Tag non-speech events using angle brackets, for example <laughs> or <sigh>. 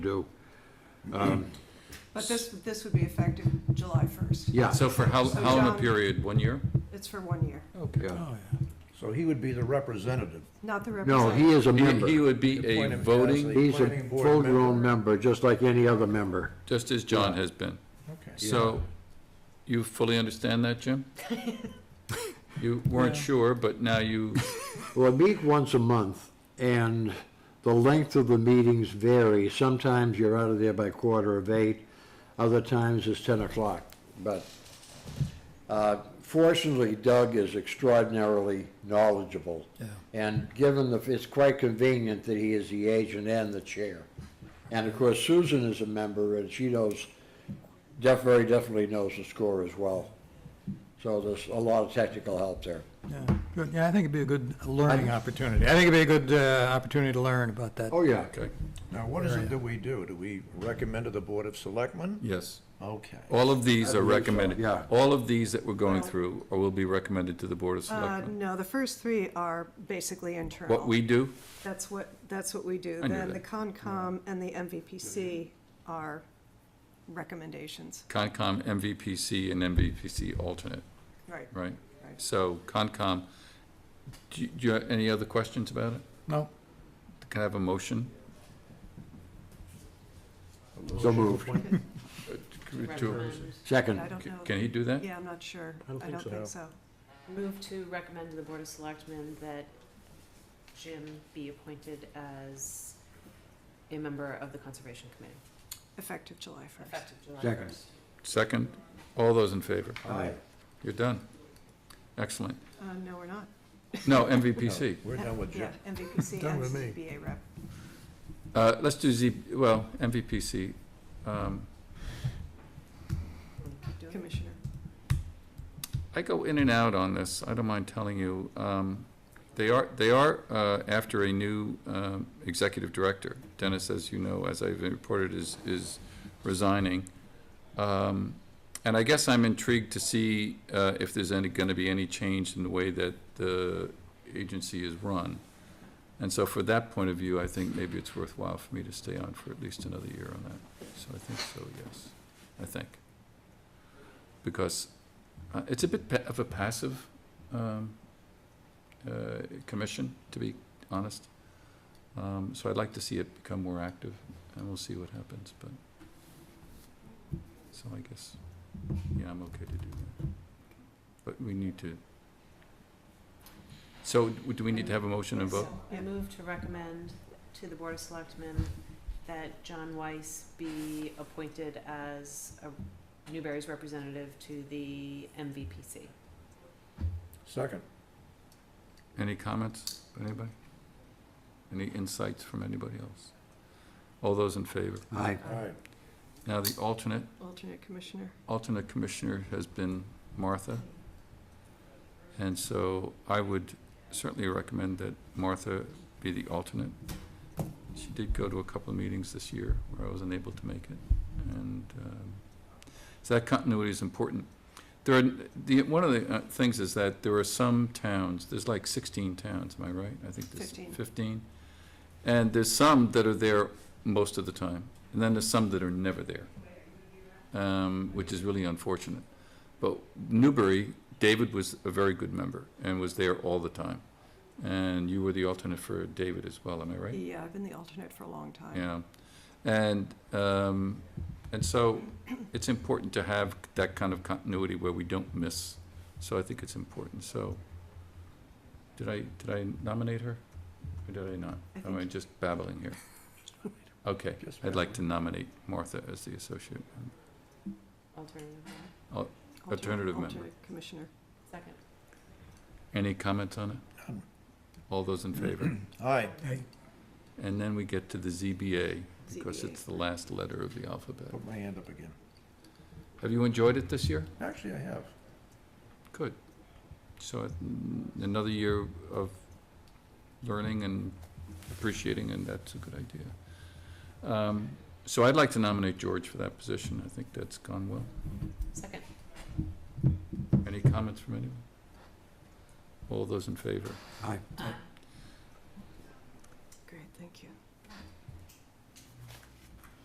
do. But this, this would be effective July 1st. Yeah, So for how, So how long a John- period, one year? It's for one year, Oh, yeah. So he would be the representative. not the No, representative. he is a He- He member. would be a Appoint him as voting, He's a Planning board full-grown member, just like any other member. just as John has been. Okay. So you fully understand that, <laughs> Jim? You weren't sure, but now you, Well, we meet once a month, and the length of the meetings vary. Sometimes you're out of there by quarter of eight, other times it's ten o'clock. But uh, fortunately Doug is extraordinarily knowledgeable. And given the, it's quite convenient that he is the agent and the chair. And of course Susan is a member, and she knows, def, very definitely knows the score as well. So there's a lot of technical help there. Yeah, good. Yeah, I think it'd be a good learning opportunity. I think it'd be a good uh, opportunity to learn about that. Oh, yeah. okay, Now, what is it that we do? Do we recommend to the Board of Selectmen? yes. Okay. All of these I are believe so, recommended. yeah. All of these that we're going through are- will be recommended to the Board of Uh, Selectmen. no, the first three are basically internal. What we do, That's what, that's what we do. I knew Then the that. Concom and the MVPC are recommendations, Concom, MVPC, and MVPC alternate, right? right? Right. So Concom, do you- do you have any other questions about it? No, Can I have a motion? So moved. Uh, to- I Second. don't know. Can he do that? Yeah, I'm not sure. I don't I think don't so. think so. Move to recommend to the Board of Selectmen that Jim be appointed as a member of the Conservation Committee, Effective July 1st. effective July Second. first. Second, all those in favor? Aye. You're done. Excellent. Uh, no, we're not. No, MVPC. We're done with Jim. Yeah, MVPC Done and with me. ZBA rep. Uh, let's do Z, well, MVPC. Um, Commissioner. I go in and out on this, I don't mind telling you. Um, they are, they are, uh, after a new, um, executive director. Dennis, as you know, as I've reported, is, is resigning. Um, and I guess I'm intrigued to see, uh, if there's any, gonna be any change in the way that the agency is run. And so for that point of view, I think maybe it's worthwhile for me to stay on for at least another year on that. So I think so, yes, I think. Because uh, It's a bit pa- of a passive um, uh, commission, to be honest. Um, So I'd like to see it become more active, and we'll see what happens, but, so I guess, yeah, I'm okay to do that. But we need to, so w- do we need to have a motion and vote? I move to recommend to the Board of Selectmen that John Weiss be appointed as a Newberry's representative to the MVPC. Second. Any comments, by anybody? Any insights from anybody else? All those in favor? Aye. All right. Now, the alternate, Alternate commissioner. alternate commissioner has been Martha. And so I would certainly recommend that Martha be the alternate. She did go to a couple of meetings this year where I was unable to make it. And um, so that continuity is important. There are, the, one of the uh, things is that there are some towns, there's like 16 towns, am I right? I think there's Fifteen. 15. And there's some that are there most of the time, and then there's some that are never there, um, which is really unfortunate. But Newbury, David was a very good member and was there all the time. And you were the alternate for David as well, am I right? Yeah, I've been the alternate for a long time. Yeah. And, um, and so it's important to have that kind of continuity where we don't miss. So I think it's important. So did I, did I nominate her? Or did I not? I Am I think- just babbling here? Okay, Just I'd like to nominate Martha as the associate. member. Alternative, Alternate- alternative member. alternate Commissioner. second. Any comments on it? None. All those in favor? Aye. And then we get to the ZBA, because ZBA. it's the last letter of the alphabet. Put my hand up again. Have you enjoyed it this year? Actually, I have. Good. So mm, another year of learning and appreciating, and that's a good idea. Um, So I'd like to nominate George for that position. I think that's gone well. Second. Any comments from anyone? All those in favor? Aye. Great, thank you.